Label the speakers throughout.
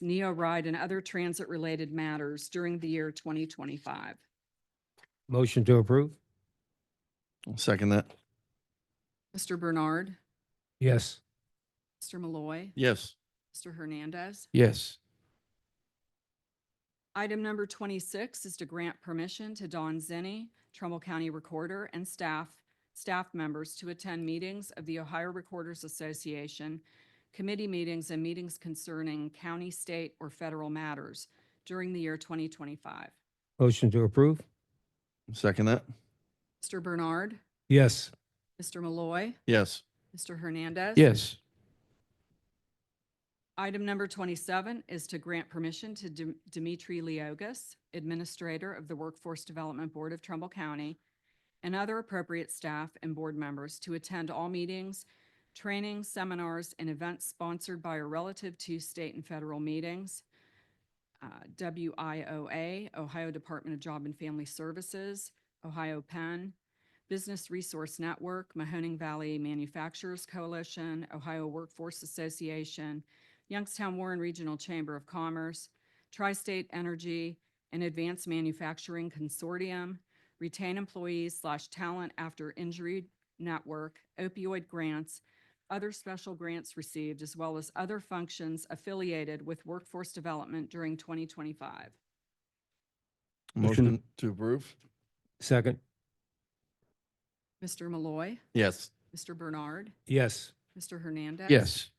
Speaker 1: Neo Ride, and other transit-related matters during the year 2025.
Speaker 2: Motion to approve?
Speaker 3: I'll second that.
Speaker 1: Mr. Bernard,
Speaker 2: Yes.
Speaker 1: Mr. Malloy,
Speaker 3: Yes.
Speaker 1: Mr. Hernandez.
Speaker 2: Yes.
Speaker 1: Item number 26 is to grant permission to Don Zenni, Trumbull County Recorder, and staff, staff members to attend meetings of the Ohio Recorders Association, committee meetings, and meetings concerning county, state, or federal matters during the year 2025.
Speaker 2: Motion to approve?
Speaker 3: Second that.
Speaker 1: Mr. Bernard,
Speaker 2: Yes.
Speaker 1: Mr. Malloy,
Speaker 3: Yes.
Speaker 1: Mr. Hernandez.
Speaker 2: Yes.
Speaker 1: Item number 27 is to grant permission to Dem- Dimitri Leogas, Administrator of the Workforce Development Board of Trumbull County, and other appropriate staff and board members to attend all meetings, trainings, seminars, and events sponsored by or relative to state and federal meetings, uh, WIOA, Ohio Department of Job and Family Services, Ohio Penn, Business Resource Network, Mahoning Valley Manufacturers Coalition, Ohio Workforce Association, Youngstown Warren Regional Chamber of Commerce, Tri-State Energy, and Advanced Manufacturing Consortium, Retain Employees slash Talent After Injury Network, opioid grants, other special grants received, as well as other functions affiliated with workforce development during 2025.
Speaker 2: Motion-
Speaker 3: Motion to approve?
Speaker 2: Second?
Speaker 1: Mr. Malloy,
Speaker 3: Yes.
Speaker 1: Mr. Bernard,
Speaker 2: Yes.
Speaker 1: Mr. Hernandez.
Speaker 2: Yes.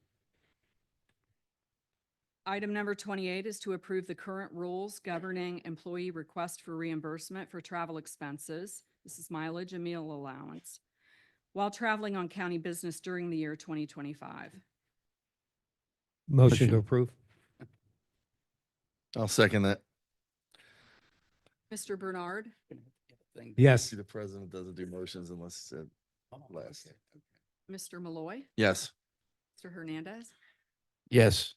Speaker 1: Item number 28 is to approve the current rules governing employee request for reimbursement for travel expenses. This is mileage and meal allowance while traveling on county business during the year 2025.
Speaker 2: Motion to
Speaker 3: Motion.
Speaker 2: approve?
Speaker 3: I'll second that.
Speaker 1: Mr. Bernard,
Speaker 2: Yes.
Speaker 3: The president doesn't do motions unless it's said last.
Speaker 1: Mr. Malloy,
Speaker 3: Yes.
Speaker 1: Mr. Hernandez.
Speaker 2: Yes.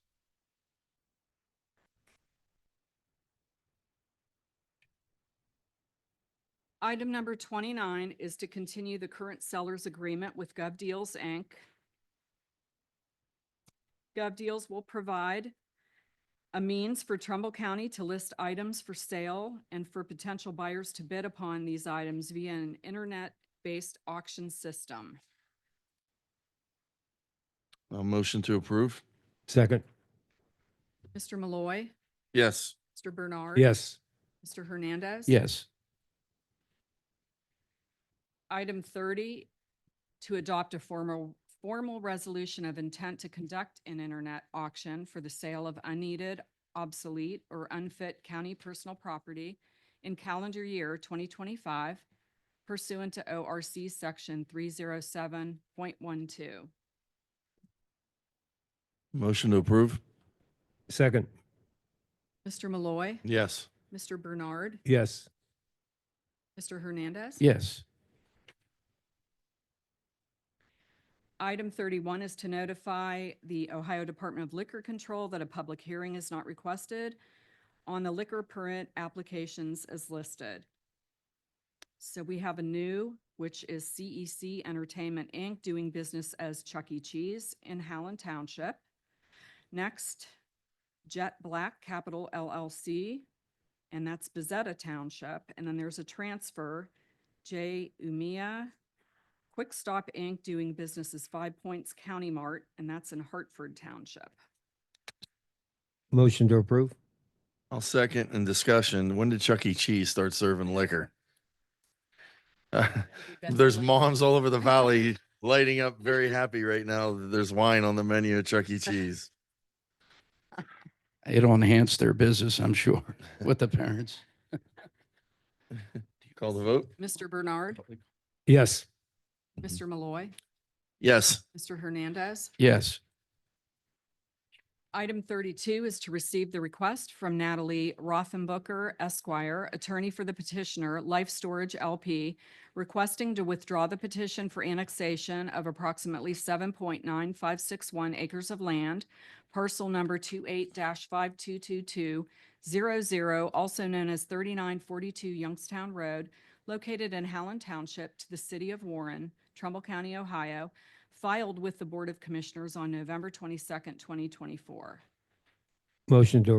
Speaker 1: Item number 29 is to continue the current seller's agreement with GovDeals, Inc. GovDeals will provide a means for Trumbull County to list items for sale and for potential buyers to bid upon these items via an internet-based auction system.
Speaker 3: A motion to approve?
Speaker 2: Second?
Speaker 1: Mr. Malloy,
Speaker 3: Yes.
Speaker 1: Mr. Bernard.
Speaker 2: Yes.
Speaker 1: Mr. Hernandez.
Speaker 2: Yes.
Speaker 1: Item thirty, to adopt a formal, formal resolution of intent to conduct an internet auction for the sale of unneeded, obsolete, or unfit county personal property in calendar year twenty twenty-five pursuant to O R C section three zero seven point one two.
Speaker 3: Motion to approve?
Speaker 2: Second?
Speaker 1: Mr. Malloy,
Speaker 3: Yes.
Speaker 1: Mr. Bernard,
Speaker 2: Yes.
Speaker 1: Mr. Hernandez.
Speaker 2: Yes.
Speaker 1: Item thirty-one is to notify the Ohio Department of Liquor Control that a public hearing is not requested on the liquor permit applications as listed. So we have a new, which is CEC Entertainment, Inc., doing business as Chuck E. Cheese in Howland Township. Next, Jet Black Capital LLC, and that's Bezetta Township. And then there's a transfer, J. Umia Quick Stop Inc. doing business as Five Points County Mart, and that's in Hartford Township.
Speaker 2: Motion to approve?
Speaker 3: I'll second in discussion. When did Chuck E. Cheese start serving liquor? Uh, There's moms all over the valley lighting up very happy right now. that There's wine on the menu at Chuck E. Cheese.
Speaker 4: It'll enhance their business, I'm sure, with the parents.
Speaker 3: Call the vote?
Speaker 1: Mr. Bernard,
Speaker 2: Yes.
Speaker 1: Mr. Malloy,
Speaker 3: Yes.
Speaker 1: Mr. Hernandez.
Speaker 4: Yes,
Speaker 1: Item thirty-two is to receive the request from Natalie Rothenbucker Esquire, attorney for the petitioner, Life Storage LP, requesting to withdraw the petition for annexation of approximately seven point nine five six one acres of land, parcel number 28 five two two two zero zero, also known as thirty-nine forty-two Youngstown Road, located in Howland Township to the city of Warren, Trumbull County, Ohio, filed with the Board of Commissioners on November twenty-second, twenty twenty-four.
Speaker 2: Motion to